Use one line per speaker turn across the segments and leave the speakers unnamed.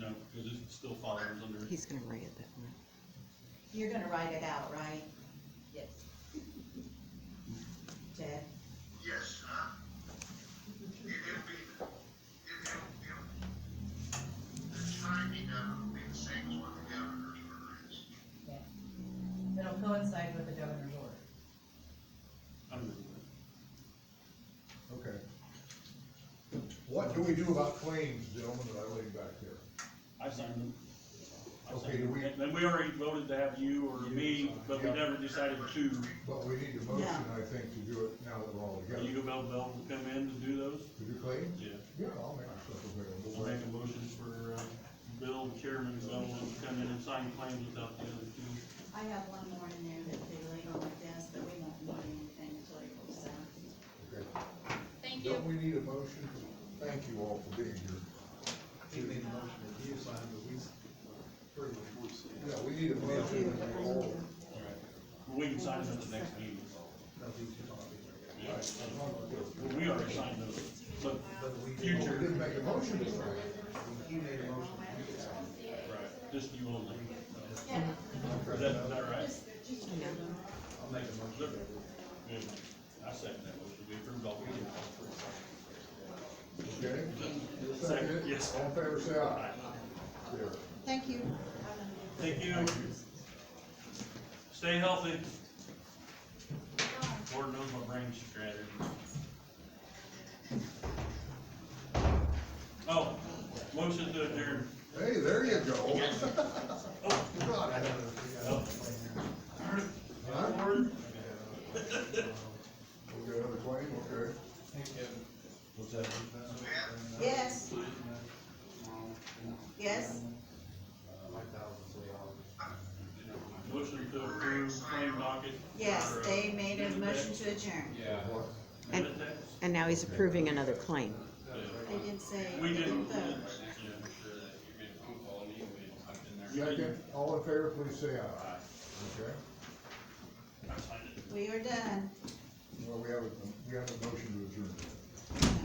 Cause it still follows under,
He's gonna write it that way.
You're gonna write it out, right,
Yes.
Ted?
Yes, huh? It, it'll be, it, it'll, it'll, the timing of it will be the same as what the governor's order is.
It'll coincide with the governor's order.
under,
Okay. What do we do about claims, gentlemen, that I laid back here?
I signed them. I
Okay,
signed
do
them.
we-
And then we already voted to have you or me, but we
Yeah.
never decided to.
But we need a motion, I think, to do it now that we're all
Are
together.
you gonna be able to come in and do those?
To do claims?
Yeah.
Yeah, I'll make myself
I'll make
available.
a motion for, uh, Bill, the chairman, to come in and sign claims without the other two.
I have one more in there that they laid on my desk, but we won't need anything until April seventh.
Okay.
Thank
Don't we need a motion? Thank you all for being here.
He made a motion that he signed, but we pretty much want to see it.
Yeah, we need a motion, that we all,
Well, We can sign them at the next meeting.
Nothing to talk about.
Yeah. Well, we already signed those, so
But we
Oh, we
did,
future,
didn't make a motion this time.
he made a motion.
right, just you only. Is that, is
I'll
that right?
make a motion. that we-
Good. I second that motion, we approved all three.
okay? You're
Second, yes.
All in favor, say aye. There.
Thank you.
Thank you. Stay healthy. Lord knows my brain's shattered. Oh, motion to adjourn.
Hey, there you go.
Oh,
God, I
I
had
don't
a-
know if we got
Oh.
a plan
Huh?
Lord.
We got another claim, okay.
What's that?
Yes, yes,
here. My thousand, three dollars.
Motion to approve claim docket.
yes,
for, uh,
they made a
minute
motion
tax.
to adjourn.
What?
Minute tax?
And now he's approving another claim.
They didn't say, they
We didn't.
didn't vote.
Second, all in favor, please say aye. Okay?
I signed it.
We are done.
Well, we have a, we have a motion to adjourn.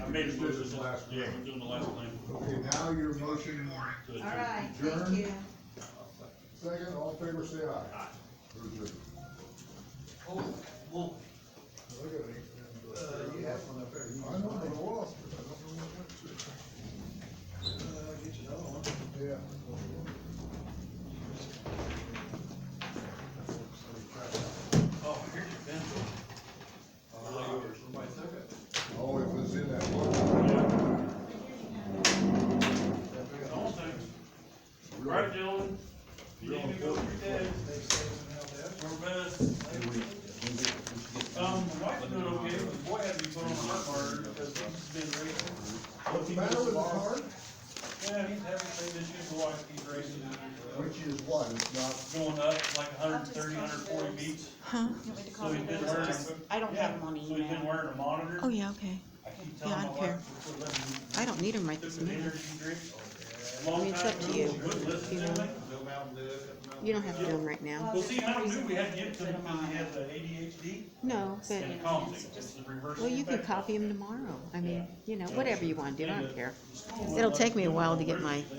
I made a
We did
motion,
this last
yeah,
night.
we're doing the last claim.
Okay, now your motion,
to
All
adjourn.
right, thank you.
second, all in favor, say aye.
Aye.
We're adjourned.
Oh, well,
Look at it.
uh, you have one up there.
I know, but I lost it, I don't know what
Uh, get you another one.
it is. Yeah.
Oh, here's your pencil.
Uh, Somebody took it.
Oh, it was in that one.
All thanks. All right, gentlemen. You need to go through that.
They say somehow that.
Your best. Um, my wife's doing okay, but the boy had to be put on heart monitor because he's been racing.
What's the matter with the card?
Yeah, he's having some issues, the wife keeps racing,
Which is what, it's not,
going up like a hundred and thirty, hundred and forty beats.
Huh?
So he's been wearing.
I don't have money
Yeah, So he's been wearing a monitor.
Oh, yeah, okay.
I keep
yeah, I
telling my
don't care.
wife, we're letting him
I don't need them right
took
this
an
minute.
energy drink. Long
mean, it's
time
up to
ago,
you.
she wouldn't listen
You
to
know.
me.
Go out and do it.
You don't have to do them right now.
Well, see, I don't do, we had to give to him because he has the ADHD
No, but,
and it calms him, it's the reverse.
well, you can
effect.
copy them tomorrow. I mean, you know, whatever you wanna do, I don't care.
The school
It'll
won't
take me a
let
while
him
to
do it.
get my